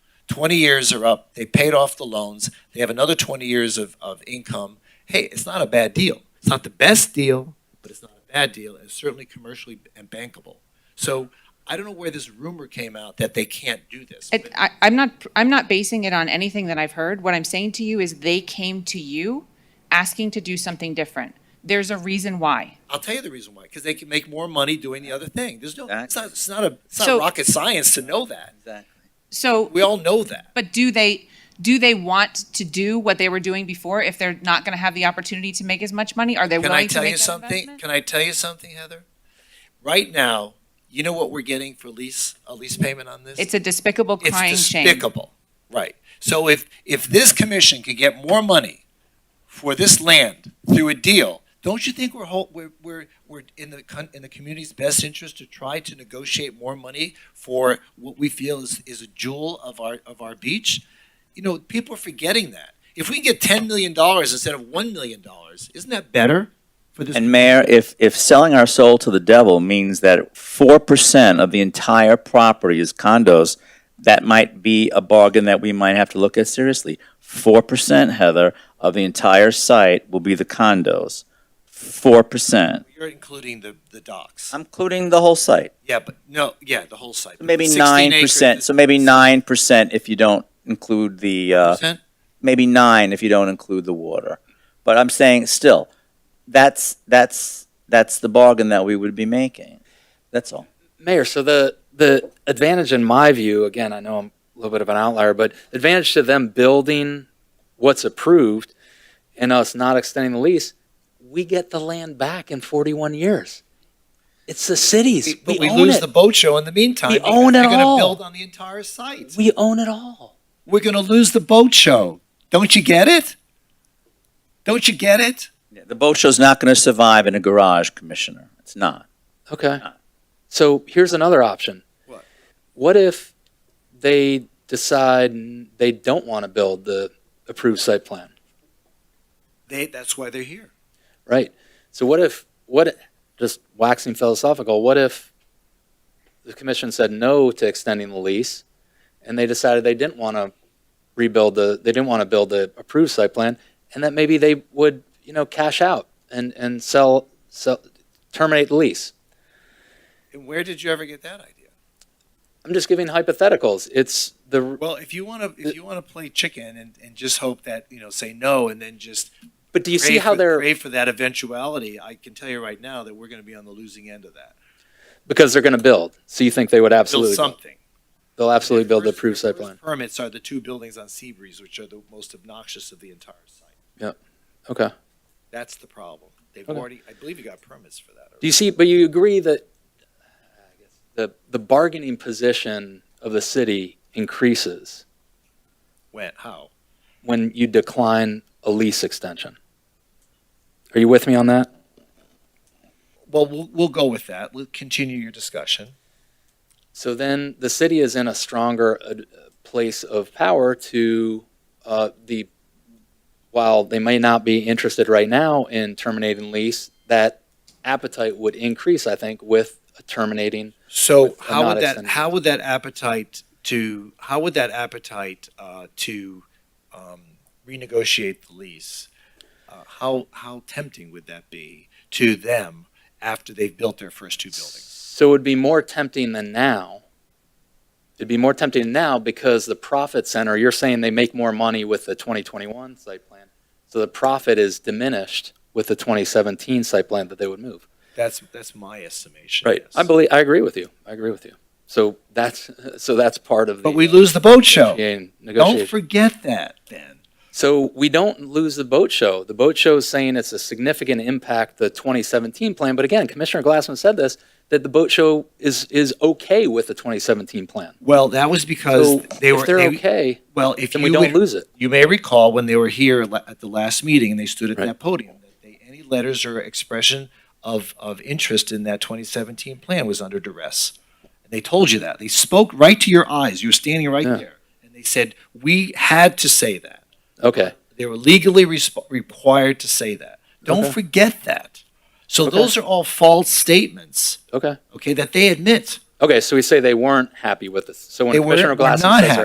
20 years are up, they paid off the loans, they have another 20 years of, of income. Hey, it's not a bad deal. It's not the best deal, but it's not a bad deal. It's certainly commercially and bankable. So I don't know where this rumor came out that they can't do this. It, I, I'm not, I'm not basing it on anything that I've heard. What I'm saying to you is they came to you asking to do something different. There's a reason why. I'll tell you the reason why, because they can make more money doing the other thing. There's no, it's Exactly. not, it's not a, it's not So- rocket science to know that. Exactly. So, We all know that. but do they, do they want to do what they were doing before if they're not going to have the opportunity to make as much money? Are they Can I willing to tell make you that something? investment? Can I tell you something, Heather? Right now, you know what we're getting for lease, a lease payment on this? It's a despicable It's crying shame. despicable, right? So if, if this commission could get more money for this land through a deal, don't you think we're whole, we're, we're, we're in the, con- in the community's best interest to try to negotiate more money for what we feel is, is a jewel of our, of our beach? You know, people are forgetting that. If we can get ten million dollars instead of one million dollars, isn't that better for this? And Mayor, if, if selling our soul to the devil means that four percent of the entire property is condos, that might be a bargain that we might have to look at seriously. Four percent, Heather, of the entire site will be the condos. Four percent. You're including the, the docks. I'm including the whole site. Yeah, but, no, yeah, the whole site. but the Maybe 16 nine acres percent, is- so maybe nine percent if you don't include the, uh, Percent? maybe nine if you don't include the water. But I'm saying still, that's, that's, that's the bargain that we would be making. That's all. Mayor, so the, the advantage in my view, again, I know I'm a little bit of an outlier, but advantage to them building what's approved and us not extending the lease, we get the land back in 41 years. It's the cities. But We we own lose the it. boat show in the meantime. We because own it They're all. gonna build on the entire site. We own it all. We're gonna lose the boat show. Don't you get it? Don't you get it? Yeah, The boat show's not going to survive in a garage, Commissioner. It's not. Okay. So here's another option. What? What if they decide they don't want to build the approved site plan? They, that's why they're here. Right. So what if what just waxing philosophical, what if the commission said no to extending the lease and they decided they didn't want to rebuild the they didn't want to build the approved site plan and that maybe they would, you know, cash out and and sell sell terminate the lease. And where did you ever get that idea? I'm just giving hypotheticals. It's the Well, if you wanna, if you wanna play chicken and, and just hope that, you know, say no and then just. but do you see pray how for- they're Pray for that eventuality. I can tell you right now that we're gonna be on the losing end of that. because they're going to build. So you think they would Build absolutely something. they'll absolutely build the First- approved site first plan. Permits are the two buildings on Seabreeze, which are the most obnoxious of the entire site. Okay. That's the problem. They've Okay. already, I believe you got permits for that. Do you see, but you agree that the, the bargaining position of the city increases When, how? when you decline a lease extension? Are you with me on that? Well, we'll, we'll go with that. We'll continue your discussion. So then the city is in a stronger uh, place of power to uh, the, while they may not be interested right now in terminating lease, that appetite would increase, I think, with terminating. So With a how not would that, extended. how would that appetite to, how would that appetite, uh, to, um, renegotiate the lease? Uh, how, how tempting would that be to them after they've built their first two buildings? So it would be more tempting than now. It'd be more tempting now because the profit center, you're saying they make more money with the 2021 site plan. So the profit is diminished with the 2017 site plan that they would move. That's, that's my estimation. yes. I believe, I agree with you. I agree with you. So that's, so that's part of the. But we lose the boat show. Don't Negotiation. forget that then. So we don't lose the boat show. The boat show is saying it's a significant impact, the 2017 plan. But again, Commissioner Glassman said this, that the boat show is, is okay with the 2017 plan. Well, that was So because they were, if they're they, okay, Well, if then you we don't would- lose it. You may recall when they were here la- at the last meeting and they stood at Right. that podium, that they, any letters or expression of, of interest in that 2017 plan was under duress. And they told you that. They spoke right to your eyes. You were standing right Yeah. there. And they said, "We had to say that. Okay. They were legally resp- required to say that. Don't Okay. forget that." So Okay. those are all false statements, Okay. okay, that they admit. Okay. So we say they weren't happy with this. So when They weren't- Commissioner were Glassman not says they're